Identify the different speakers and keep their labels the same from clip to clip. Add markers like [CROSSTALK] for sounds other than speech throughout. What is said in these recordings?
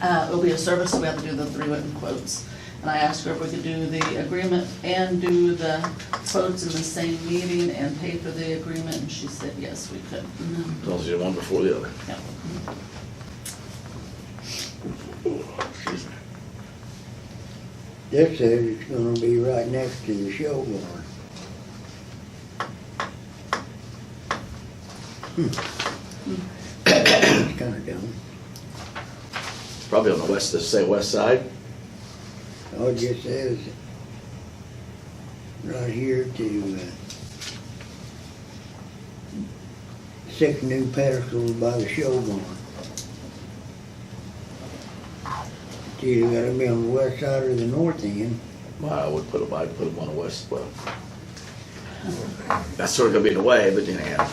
Speaker 1: Uh, It'll be a service, so we have to do the three written quotes. And I asked her if we could do the agreement and do the quotes in the same meeting and pay for the agreement, and she said, yes, we could.
Speaker 2: As long as you do one before the other.
Speaker 1: Yep.
Speaker 2: Excuse me.
Speaker 3: This says it's gonna be right next to the show barn. It's Hmm. [COUGHS] kinda dumb.
Speaker 2: Probably on the west, say west side.
Speaker 3: Oh, it just says right here to uh, six new pedestals by the show barn. It's either gotta be on the west side or the north end.
Speaker 2: Well, I would put them, I'd put them on the west, well. That's sort of gonna be in the way, but anyhow.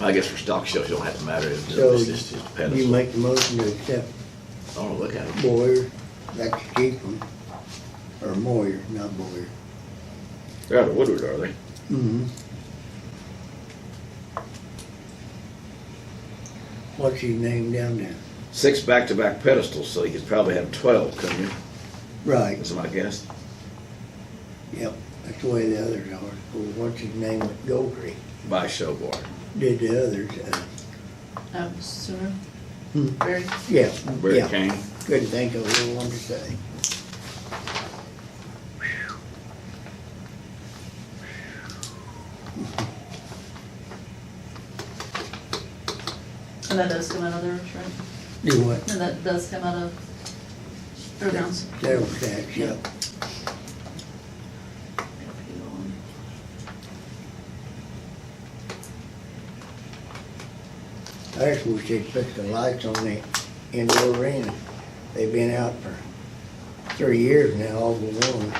Speaker 2: I guess for stock shows, you don't have to matter. It's
Speaker 3: So
Speaker 2: just, it's just a
Speaker 3: you
Speaker 2: pedestal.
Speaker 3: make the motion to accept
Speaker 2: I don't look at it.
Speaker 3: Boyer, that's the cheap one, or Moyer, not Boyer.
Speaker 2: They're out of Woodward, are they?
Speaker 3: Mm-hmm. What's his name down there?
Speaker 2: Six back-to-back pedestals, so you could probably have twelve, couldn't you?
Speaker 3: Right,
Speaker 2: That's my guess.
Speaker 3: yep, that's the way the others are. Well, what's his name with Gokri
Speaker 2: By show bar.
Speaker 3: did the others, uh,
Speaker 1: Um, Sue,
Speaker 3: Hmm.
Speaker 1: Barry?
Speaker 3: yeah,
Speaker 2: Where it
Speaker 3: yeah.
Speaker 2: came.
Speaker 3: Couldn't think of what I wanted to say.
Speaker 1: And that does come out of theirs, right?
Speaker 3: Do what?
Speaker 1: And that does come out of fairgrounds.
Speaker 3: Sales tax, yep. I just wish they'd put the lights on the indoor arena. They've been out for three years now, all but one.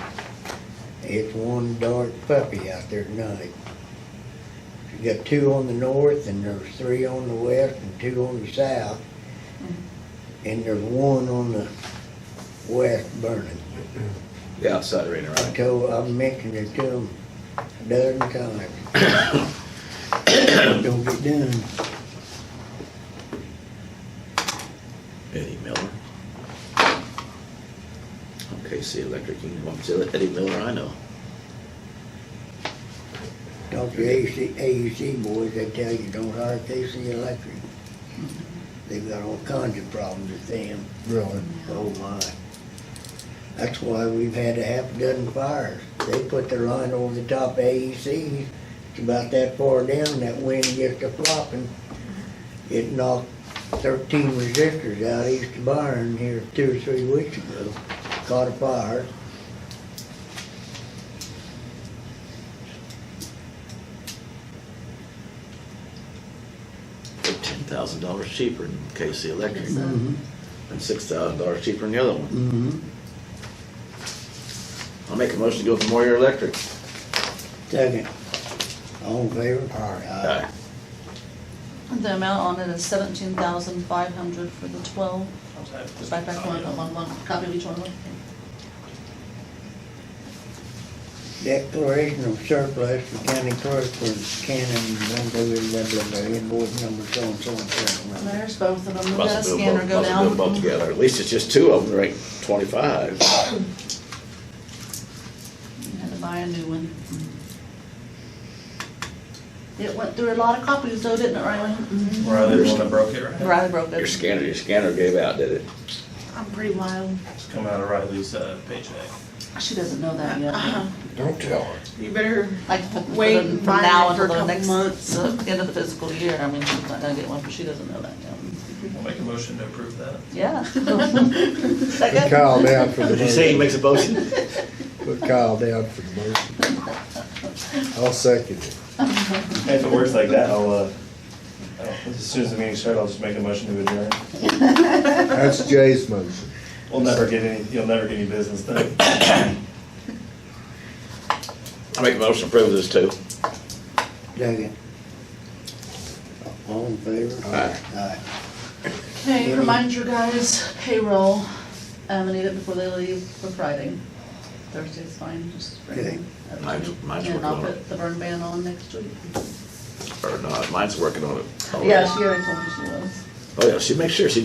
Speaker 3: It's one dark puppy out there tonight. You got two on the north and there's three on the west and two on the south. And there's one on the west burning.
Speaker 2: The outside arena,
Speaker 3: I
Speaker 2: right?
Speaker 3: told, I've mentioned it to them a dozen times. [COUGHS] Don't get done.
Speaker 2: Eddie Miller. Okay, see electric, you can to Eddie Miller, I know.
Speaker 3: Talk to AEC, AEC E boys, they tell you don't hire KC Electric. They've got all kinds of problems with them.
Speaker 4: Really?
Speaker 3: Oh my. That's why we've had a half dozen fires. They put their line over the top of AECs. It's about that far down, that wind gets to flopping. It knocked thirteen resistors out east of Byron here two or three weeks ago. Caught a fire.
Speaker 2: They're ten thousand dollars cheaper than KC Electric,
Speaker 1: Yes, sir.
Speaker 3: Mhm.
Speaker 2: and six thousand dollars cheaper than the other one.
Speaker 3: Mm-hmm.
Speaker 2: I'll make a motion to go for Moyer Electric.
Speaker 3: Second. All in favor? Aye.
Speaker 1: The amount on it is seventeen thousand five hundred for the twelve. Back, back one, one, one, copy of each one.
Speaker 3: Declaration of surplus for county clerk for Cannon, blah, blah, blah, blah, blah, invoice number so and so and
Speaker 1: And
Speaker 3: so.
Speaker 1: there's both of them, the
Speaker 2: Must have
Speaker 1: scanner
Speaker 2: been
Speaker 1: go
Speaker 2: both, must have
Speaker 1: down.
Speaker 2: been both together. At least it's just two of them, right? Twenty-five.
Speaker 1: Had to buy a new one. It went through a lot of copies though, didn't it, Riley?
Speaker 5: Riley, the one that broke it, right?
Speaker 1: Riley broke
Speaker 2: Your
Speaker 1: it.
Speaker 2: scanner, your scanner gave out, did it?
Speaker 1: I'm pretty wild.
Speaker 5: It's coming out of Riley's uh, paycheck.
Speaker 1: Ah, She doesn't know that yet.
Speaker 4: Don't tell her.
Speaker 6: You better,
Speaker 1: Like from
Speaker 6: Wait
Speaker 1: from
Speaker 6: and buy
Speaker 1: now
Speaker 6: it for
Speaker 1: until
Speaker 6: a
Speaker 1: the
Speaker 6: couple
Speaker 1: next,
Speaker 6: months.
Speaker 1: uh, end of [LAUGHS] the fiscal year, I mean, she's not gonna get one, but she doesn't know that yet.
Speaker 5: I'll make a motion to approve that.
Speaker 1: [LAUGHS] Yeah.
Speaker 4: Put
Speaker 1: Second?
Speaker 4: Kyle down for the
Speaker 2: Did you say he
Speaker 4: motion.
Speaker 2: makes a
Speaker 5: [LAUGHS]
Speaker 2: motion?
Speaker 4: Put Kyle down for the motion. I'll second it.
Speaker 5: If it works like that, I'll, uh, I'll- as soon as the meeting starts, I'll just make a motion to adjourn.
Speaker 4: That's Jay's motion.
Speaker 5: We'll never get any, you'll never get any business done.
Speaker 2: I make a motion to approve this too.
Speaker 3: Second. All in favor?
Speaker 2: Aye.
Speaker 3: Aye.
Speaker 1: Hey, remind your guys payroll, I'm gonna need it before they leave for Friday. Thursday's fine, just bring
Speaker 3: Okay.
Speaker 1: it. up to
Speaker 2: Mine's-
Speaker 1: me,
Speaker 2: mine's
Speaker 1: And I'll
Speaker 2: working on it.
Speaker 1: put the burn ban on next week.
Speaker 2: Or not, mine's working on it.
Speaker 1: Yeah, she already told me she was.
Speaker 2: Oh, yeah, she makes sure, she